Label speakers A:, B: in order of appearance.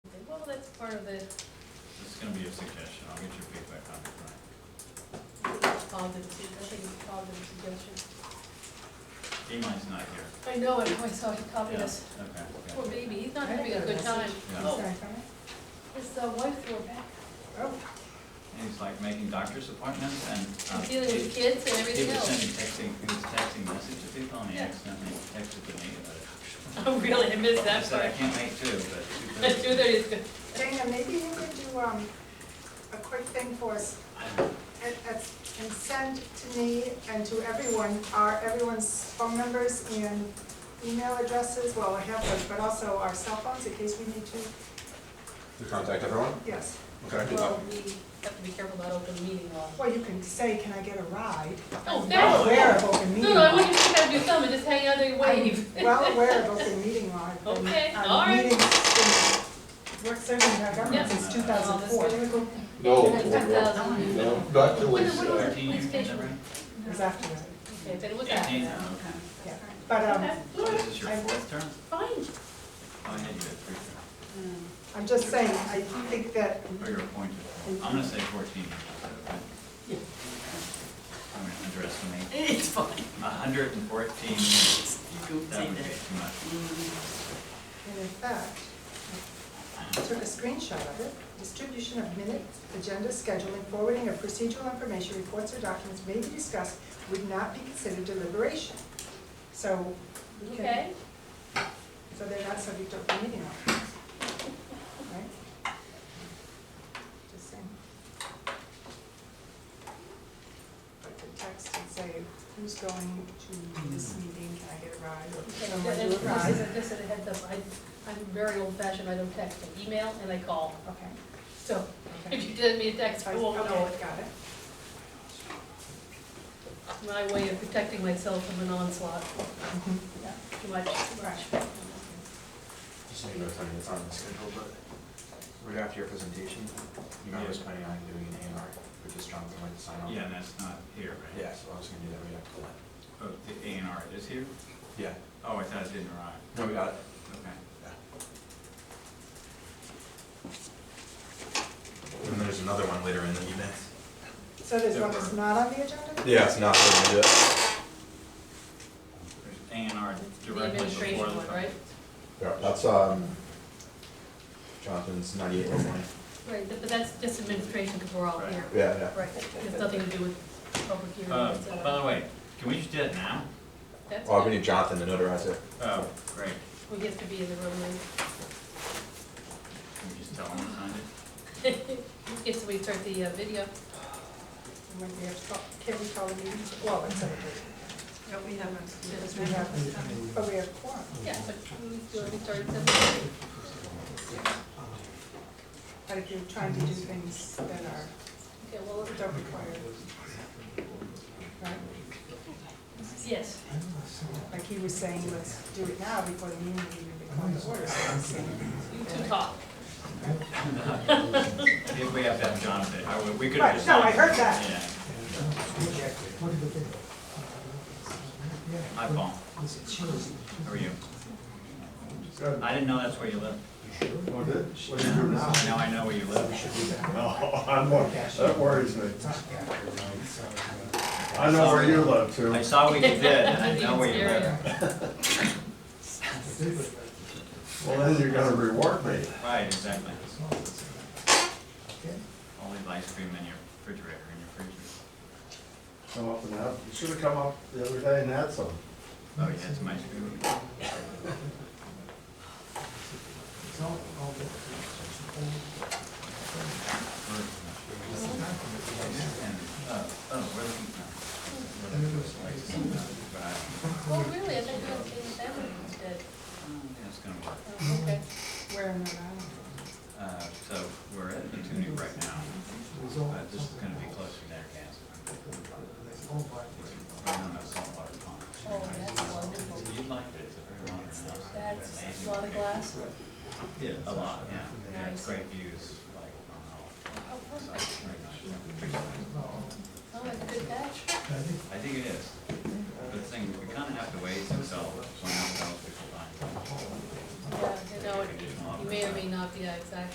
A: part of the,
B: This is gonna be a suggestion, I'll get your feedback on it, right?
A: all the, I think it's called the suggestion.
B: Emi's not here.
A: I know it, I saw he copied
B: Yeah,
A: us.
B: Okay, okay.
A: Poor baby, he's not having a good time.
B: Yeah. Ah.
A: Oh, his uh, wife threw her back.
C: Oh,
B: And he's like making doctor's appointments and, uh,
A: He's dealing with
B: he
A: kids and
B: he
A: everything
B: was
A: else.
B: sending texting, he was texting message to people and he
A: Yeah.
B: accidentally texted to me about it.
A: Oh, really, I missed
B: I
A: that
B: said, I
A: part.
B: can't make two, but two
A: But two
B: thirty.
A: thirty is good.
C: Dana, maybe you could do, um, a quick thing for us, and, and send to me and to everyone, our, everyone's phone numbers and email addresses, well, I have those, but also our cell phones in case we need to,
D: To contact everyone?
C: yes.
D: Okay. I can do that.
A: Well, we have to be careful about open meeting law.
C: Well, you can say, can I get a ride?
A: Oh,
C: Well aware
A: thanks.
C: of open meeting
A: No, no, I
C: law.
A: wouldn't think I'd do something, just hang out there and wave.
C: I'm Well aware of open meeting law. I've been
A: Okay,
C: on
A: all right.
C: Um, meetings in- Work serving in our
A: Yeah.
C: government since
A: Oh,
C: two thousand four, it
D: No,
A: Like
D: no, no,
A: 2,000.
D: no, that was,
A: Wait, wait,
D: uh,
B: Thirteen years, is that right?
C: was after that,
A: Okay, then what's that?
B: Eighteen,
A: Oh, Okay,
B: okay.
C: yeah, but, um,
A: all
B: So
A: right,
B: This is your
C: I-
B: fourth term?
A: fine.
B: Oh, I had you at three terms,
C: I'm just saying, I think that
B: or you're appointed. I'm gonna say fourteen. Okay. I'm gonna underestimate.
E: It's fine.
B: A hundred and fourteen,
E: You go
B: that
E: take
B: would be
E: that.
B: too much.
E: Mm.
C: And in fact, I took a screenshot of it. Distribution of minutes, agenda scheduling, forwarding of procedural information, reports or documents may be discussed would not be considered deliberation. So, we can-
A: Okay,
C: so they're not subject to open meeting law. Right? Just saying. But the text and say, who's going to this meeting, can I get a ride? Or
A: okay,
C: someone
A: then
C: do a
A: this is,
C: ride?
A: a- this is a heads up, I, I'm very old fashioned, I don't text, I email and I call.
C: Okay,
A: So
C: okay.
A: if you send me a text, I won't know
C: Okay, got it.
A: it. My way of protecting myself from an onslaught. Yeah, Too much, too much.
D: just need to know it's on the schedule, but right after your presentation, you know, I was planning on doing an A and R, which is Jonathan White to sign off.
B: Yeah, and that's not here, right?
D: Yeah, so I was gonna do that right after that.
B: Oh, the A and R is here?
D: Yeah,
B: Oh, I thought it didn't arrive,
D: no, we got it.
B: okay.
F: And there's another one later in the evening.
C: So there's one that's not on the agenda?
F: Yeah, it's not going to do it.
B: There's A and R
A: The
B: directly
A: administration
B: before the.
A: one, right?
F: Yeah, that's, um, Jonathan's ninety-eight oh one.
A: Right, but that's just administration because we're all
B: Right.
A: here.
F: Yeah, yeah.
A: Right, it's nothing to do with public hearing,
B: Uh,
A: it's,
B: by
A: uh,
B: the way, can we just do it now?
A: that's,
D: Oh,
F: Well, we
A: fine.
F: need Jonathan to notarize it.
B: Oh, great,
A: we get to be in the room and,
B: can we just tell them to sign it?
A: get somebody to start the uh, video.
C: When we have, call- can we call a meeting? Well, it's okay.
E: we have
C: Because we have, but we have quorum.
A: Yeah, but we do it, we start something.
C: But if you're trying to do things that are,
A: Okay, well,
C: that don't require, right?
A: yes.
C: Like he was saying, let's do it now before the meeting even becomes order.
A: You two talk.
B: If we have to have Jonathan, I would, we could
C: Right,
B: have just.
C: no, I
B: signed it.
C: heard that.
B: Yeah, hi Paul, how are you?
G: Good.
B: I didn't know that's where you lived.
G: What do you do now?
B: Now I know where you live.
G: No, Oh, I'm, wor- that worries me. I know where you live too.
B: I saw what you did and I
A: Even
B: know where you live.
A: scarier.
G: Well, then you're gonna reward me.
B: Right, exactly. All these ice cream in your refrigerator, in your freezer.
G: Come up and have, you should've come up the other day and had some.
B: Oh, yeah, it's my ice cream. And, uh, oh, we're looking for. But I,
A: Well, really, I think you'll change that one instead.
B: yeah, it's gonna work.
A: Oh, Okay.
C: Where in Rhode Island?
B: Uh, so we're at Etunuc right now, but Uh, this is gonna be closer to their gas. Right on that saltwater pond.
A: Oh, that's wonderful.
B: You'd like it, it's a very modern house.
A: That's a lot of glass. Oh,
B: Yeah, a lot, yeah. Yeah, it's
A: Nice.
B: great views, like, on all
A: Oh, perfect.
B: sides, very nice.
A: Oh, that's a good catch.
B: I think it is. But the thing, we kinda have to wait until someone else tells people
A: Yeah, you know, it- you may or may not be, yeah, exactly.